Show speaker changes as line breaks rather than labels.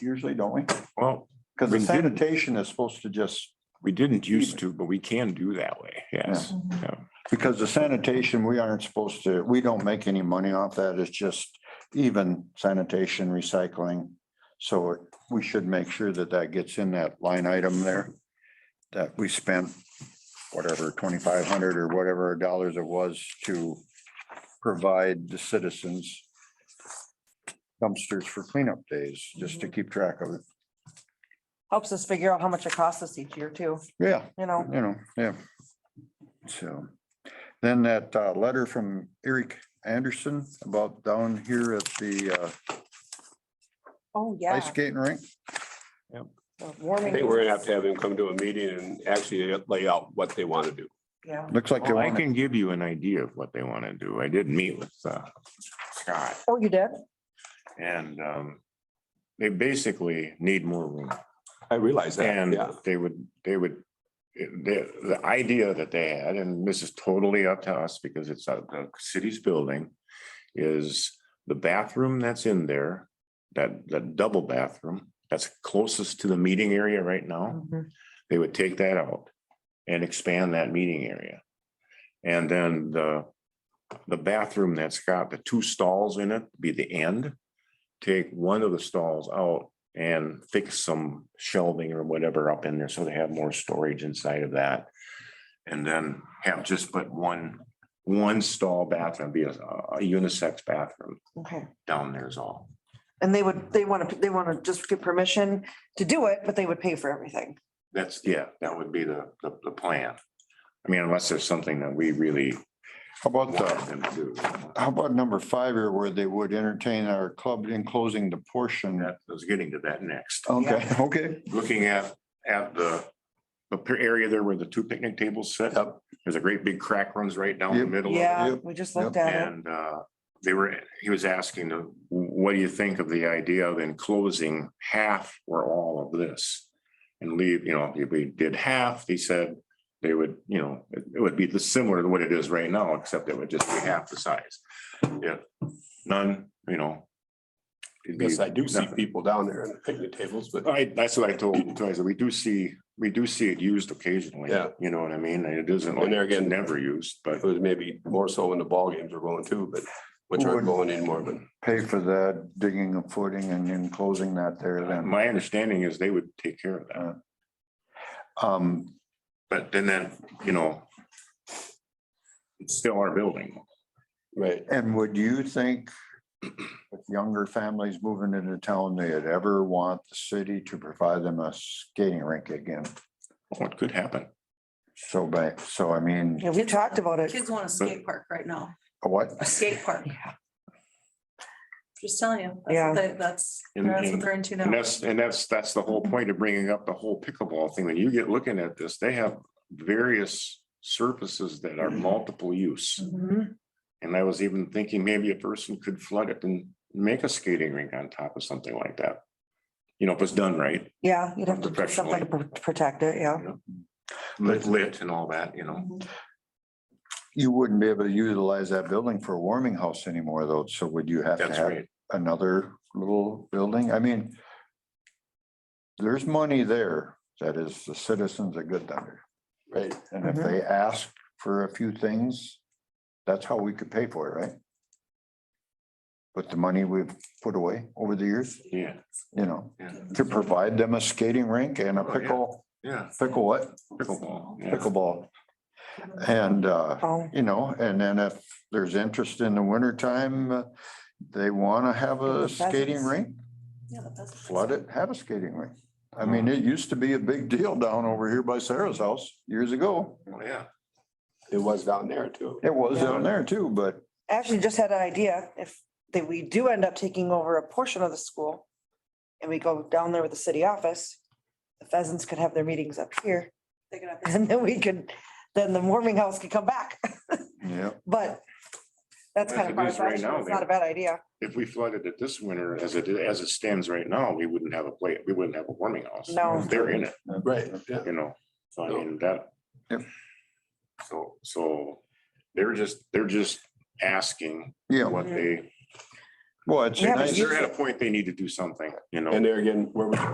usually, don't we?
Well,
Because the
We didn't.
sanitation is supposed to just,
we didn't used to, but we can do that way. Yes. Yeah.
because the sanitation, we aren't supposed to, we don't make any money off that. It's just even sanitation, recycling. So we should make sure that that gets in that line item there, that we spent whatever, twenty-five hundred or whatever dollars it was to provide the citizens dumpsters for cleanup days, just to keep track of it.
Helps us figure out how much it costs us each year too,
Yeah.
you know?
you know, yeah. So then that uh, letter from Eric Anderson about down here at the uh,
Oh,
ice
yeah.
skating rink.
the
I
Warming.
think we're gonna have to have him come to a meeting and actually lay out what they want to do.
Yeah.
Looks like they
Well, I
want,
can give you an idea of what they want to do. I did meet with uh, Scott
Oh, you did?
and um, they basically need more room.
I realize that,
And
yeah.
they would, they would, the, the idea that they had, and this is totally up to us because it's uh, the city's building, is the bathroom that's in there, that, that double bathroom, that's closest to the meeting area right now,
Mhm.
they would take that out and expand that meeting area. And then the, the bathroom that's got the two stalls in it be the end. Take one of the stalls out and fix some shelving or whatever up in there, so they have more storage inside of that. And then have just put one, one stall bathroom, be a, a unisex bathroom
Okay.
down there is all.
And they would, they want to, they want to just get permission to do it, but they would pay for everything.
That's, yeah, that would be the, the, the plan. I mean, unless there's something that we really
how about
want
the,
them to do.
how about number five here where they would entertain our club in closing the portion?
That, I was getting to that next.
Okay, okay.
looking at, at the, the per- area there where the two picnic tables sit up, there's a great big crack runs right down the
Yep.
middle. of it.
Yeah,
Yep,
we just
yep.
looked at it.
And, uh, they were, he was asking, uh, what do you think of the idea of enclosing half or all of this? And leave, you know, if we did half, he said, they would, you know, it it would be the similar to what it is right now, except it would just be half the size. Yeah, none, you know. it'd be
Yes, I do see
nothing.
people down there in the picnic tables, but
I, that's what I told him, too. I said, we do see, we do see it used occasionally.
Yeah.
You know what I mean? And It isn't like
And there
it's
again-
never used, but
it was maybe more so when the ball games were going too, but which aren't going anymore, but
Pay for that digging a footing and then closing that there then.
my understanding is they would take care of that.
Um,
But then then, you know, it's still our building.
right.
and would you think with younger families moving into town, they'd ever want the city to provide them a skating rink again?
What could happen?
So by, so I mean,
Yeah, we talked about it.
Kids want a skate park right now,
what?
a skate park,
Yeah.
just telling you. that's
Yeah.
what they- That's,
And-
that's
and-
what they're into
And
now.
that's, and that's, that's the whole point of bringing up the whole pickleball thing. When you get looking at this, they have various surfaces that are
Mm-hmm.
multiple use.
Mhm.
And I was even thinking maybe a person could flood it and make a skating rink on top of something like that. You know, if it's done right,
Yeah, you'd have to do something to pr- protect it, yeah.
lit, lit and all that, you know.
Mhm.
You wouldn't be able to utilize that building for a warming house anymore though, so would you have to
That's
have
right.
another little building? I mean. There's money there that is the citizens are good under.
Right.
And if
Mhm.
they ask for a few things, that's how we could pay for it, right? With the money we've put away over the years,
Yeah,
you know,
yeah,
to provide them a skating rink and a
Oh, yeah.
pickle,
yeah.
pickle what?
Pickleball. yeah.
Pickleball. And uh.
Oh,
you know, and then if there's interest in the wintertime, uh, they want to have a
Pheasants.
skating rink,
Yeah, but that's-
flood it, have a skating rink. I mean, it used to be a big deal down over here by Sarah's house years ago.
Oh, Yeah.
It was down there too.
It was
Yeah.
down there too, but
Actually, just had an idea. If they, we do end up taking over a portion of the school and we go down there with the city office, the pheasants could have their meetings up here
They could have-
and then we could, then the warming house could come back.
yeah,
But that's
Well,
kind of
if it is right
far-fetched.
now,
It's not
they-
a bad idea.
If we flooded it this winter as it, as it stands right now, we wouldn't have a play, we wouldn't have a warming house.
No.
They're in it,
Right, yeah.
you know, so I mean, that.
Yep.
So, so they're just, they're just asking
yeah.
what they
Well, it's.
Yeah, but
nice-
They're at a point they need to do something, you know?
And there again, where we